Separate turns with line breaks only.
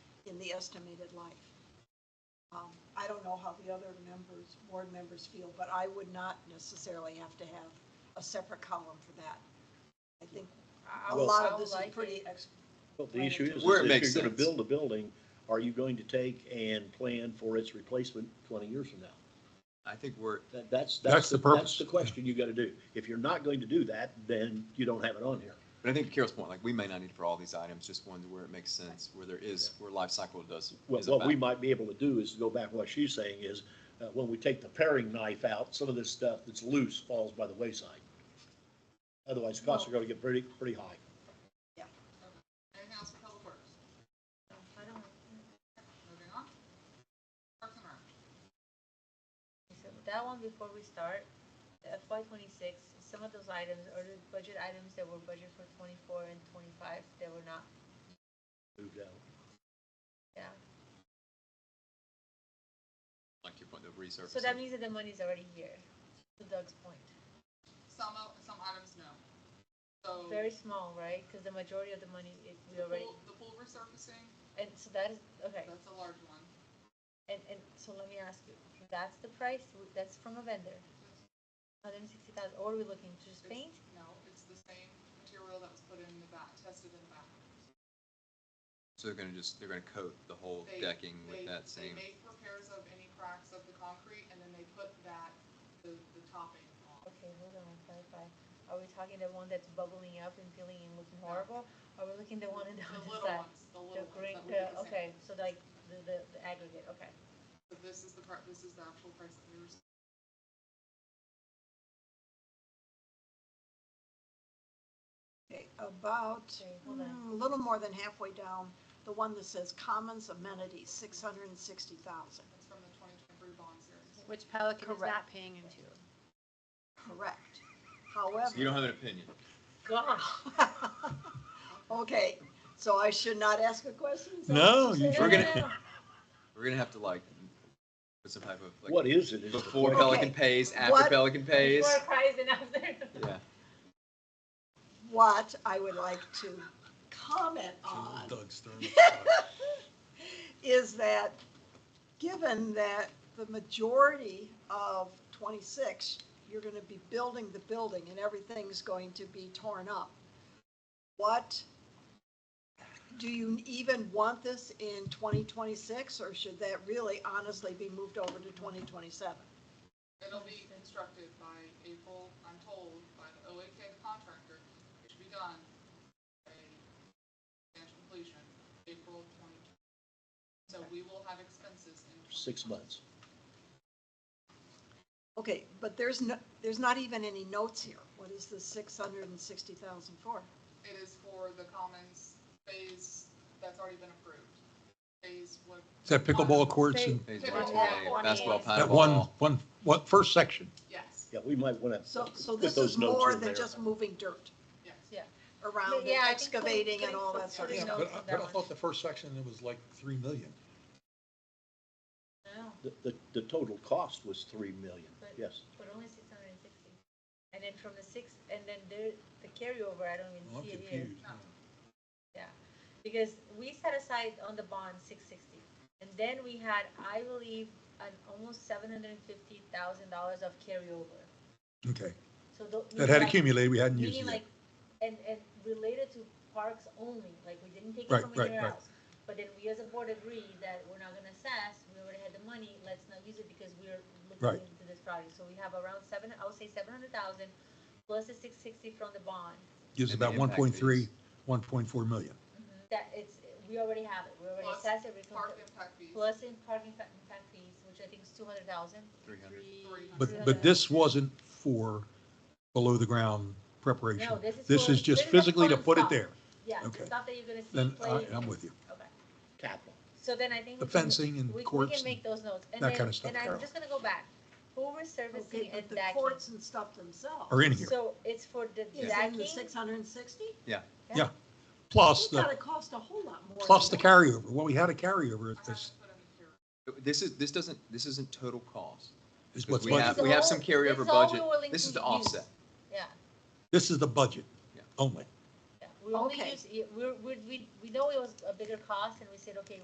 in the estimated life. Um, I don't know how the other members, board members feel, but I would not necessarily have to have a separate column for that. I think a
Well-
lot of this is
Sounds like
pretty,
it.
ex-
Well, the issue is, is
Where it
if
makes
you're gonna
sense.
build a building, are you going to take and plan for its replacement twenty years from now?
I think we're,
That, that's,
That's
that's,
the
the- that's
purpose.
the question you gotta do. If you're not going to do that, then you don't have it on here.
but I think to Carol's point, like, we may not need for all these items, just ones where it makes sense, where there is, where life cycle does.
What,
is a
what we
fact.
might be able to do is to go back, what she's saying is, uh, when we take the paring knife out, some of this stuff that's loose falls by the wayside. Otherwise, costs are gonna get pretty, pretty high.
And House of Public Works.
I don't,
Moving on. Parks and Rec.
so that one before we start, the FY twenty-six, some of those items are the budget items that were budgeted for twenty-four and twenty-five that were not,
Moved out.
yeah.
Like your point, the research.
So that means that the money's already here, to Doug's point.
Some, o- some items, no. So.
Very small, right? Because the majority of the money, it, we
The
already,
pool, the pool resurfacing,
and so that is, okay.
that's a large one.
And, and so let me ask you, that's the price, that's from a vendor? Hundred and sixty thousand, or are we looking to just
It's-
paint?
No, it's the same material that was put in the back, tested in the back.
So they're gonna just, they're gonna coat the whole
They-
decking
they-
with that
They
same,
make repairs of any cracks of the concrete and then they put that, the, the topping on.
Okay, hold on, clarify. Are we talking the one that's bubbling up and peeling and looking horrible? Are we looking the one in the
The
other
little
side?
ones, the
The
little ones
green,
that we did
the,
the same.
okay, so like the, the, the aggregate, okay.
So this is the part, this is the actual price that we were.
Okay, about,
Okay, hold on.
mm, a little more than halfway down, the one that says commons amenities, six hundred and sixty thousand,
It's from the twenty twenty-three bond series.
Which Pelican is that
Correct.
paying into?
correct.
you
However,
don't have an opinion.
Gosh.
okay, so I should not ask a question? Is that
No,
what you're
you
saying?
We're gonna, we're gonna have to like, put some type of,
What
like,
is it? is the
before
question.
Pelican pays, after
What-
Pelican pays.
Before it cries and after.
Yeah,
What I would like to comment on
Doug's throwing.
is that, given that the majority of twenty-six, you're gonna be building the building and everything's going to be torn up, what, do you even want this in twenty twenty-six, or should that really honestly be moved over to twenty twenty-seven?
It'll be constructed by April, I'm told, by the OAK contractor. It should be done by substantial completion, April twenty twenty. So we will have expenses in.
Six months.
Okay, but there's no, there's not even any notes here, what is the six hundred and sixty thousand for?
It is for the commons phase that's already been approved. Phase what?
Is that pickleball courts and
pays
Pickleball
one
court
day, basketball,
is-
that
paddle
one,
ball.
one, what, first section?
Yes,
Yeah, we might wanna
So, so
put
this
those
is
notes
more
in
than
there.
just moving dirt
yes.
around, and
Yeah, I think putting-
excavating and
putting
all
some
that sort of
putting
stuff.
notes on that one.
the first section, it was like three million.
No,
The, the, the total cost was three million,
But-
yes.
but only six hundred and sixty. And then from the six, and then there, the carryover, I don't even
Well, I'm
see it here.
confused.
Yeah, because we set aside on the bond six sixty, and then we had, I believe, an almost seven hundred and fifty thousand dollars of carryover.
Okay,
So tho-
that had
meaning like-
accumulated, we hadn't used
Meaning
it yet.
like, and, and related to parks only, like we didn't take it
Right,
from
right,
anywhere
right.
else. But then we as a board agreed that we're not gonna assess, we already had the money, let's not use it because we're
Right.
looking into this project. So we have around seven, I would say seven hundred thousand, plus the six sixty from the bond.
Gives
And the
about one
impact
point three,
fees.
one point four million.
That it's, we already have it, we already
Mm-hmm. Plus
assessed it, we
Park impact fees.
plus in parking fa- impact fees, which I think is two hundred thousand.
Three hundred.
But, but this wasn't for below the ground preparation.
No, this is
This
for-
is just
this is a
physically to
fun
put it
stuff.
there.
Yeah, the
Okay.
stuff that you're gonna see
Then
play.
I, I'm with you.
Okay,
Capital.
so then I think.
The
we can-
fencing and
we- We
courts
can
and
make those notes. And
that
then-
kinda stuff,
And I'm
Carol.
just gonna go back. Pool
Okay,
resurfacing
but
and
the
decking.
courts and stuff themselves.
Are in here.
So it's for the
Is in the
decking.
six hundred and sixty?
Yeah. Plus
It's gotta
the,
cost a whole lot more.
plus the
than
carryover. Well, we had a carryover
I haven't
at
Uh-huh.
this,
put in here.
This is, this doesn't, this isn't total cost.
is
Because
what's
we have,
budgeted.
budget.
we have some
This is all-
carryover
this is all
budget.
we're willing
This
to
is the
use.
offset.
Yeah,
This is the budget
Yeah.
only.
yeah. We only
Okay.
use, we, we, we know it was a bigger cost and we said, okay,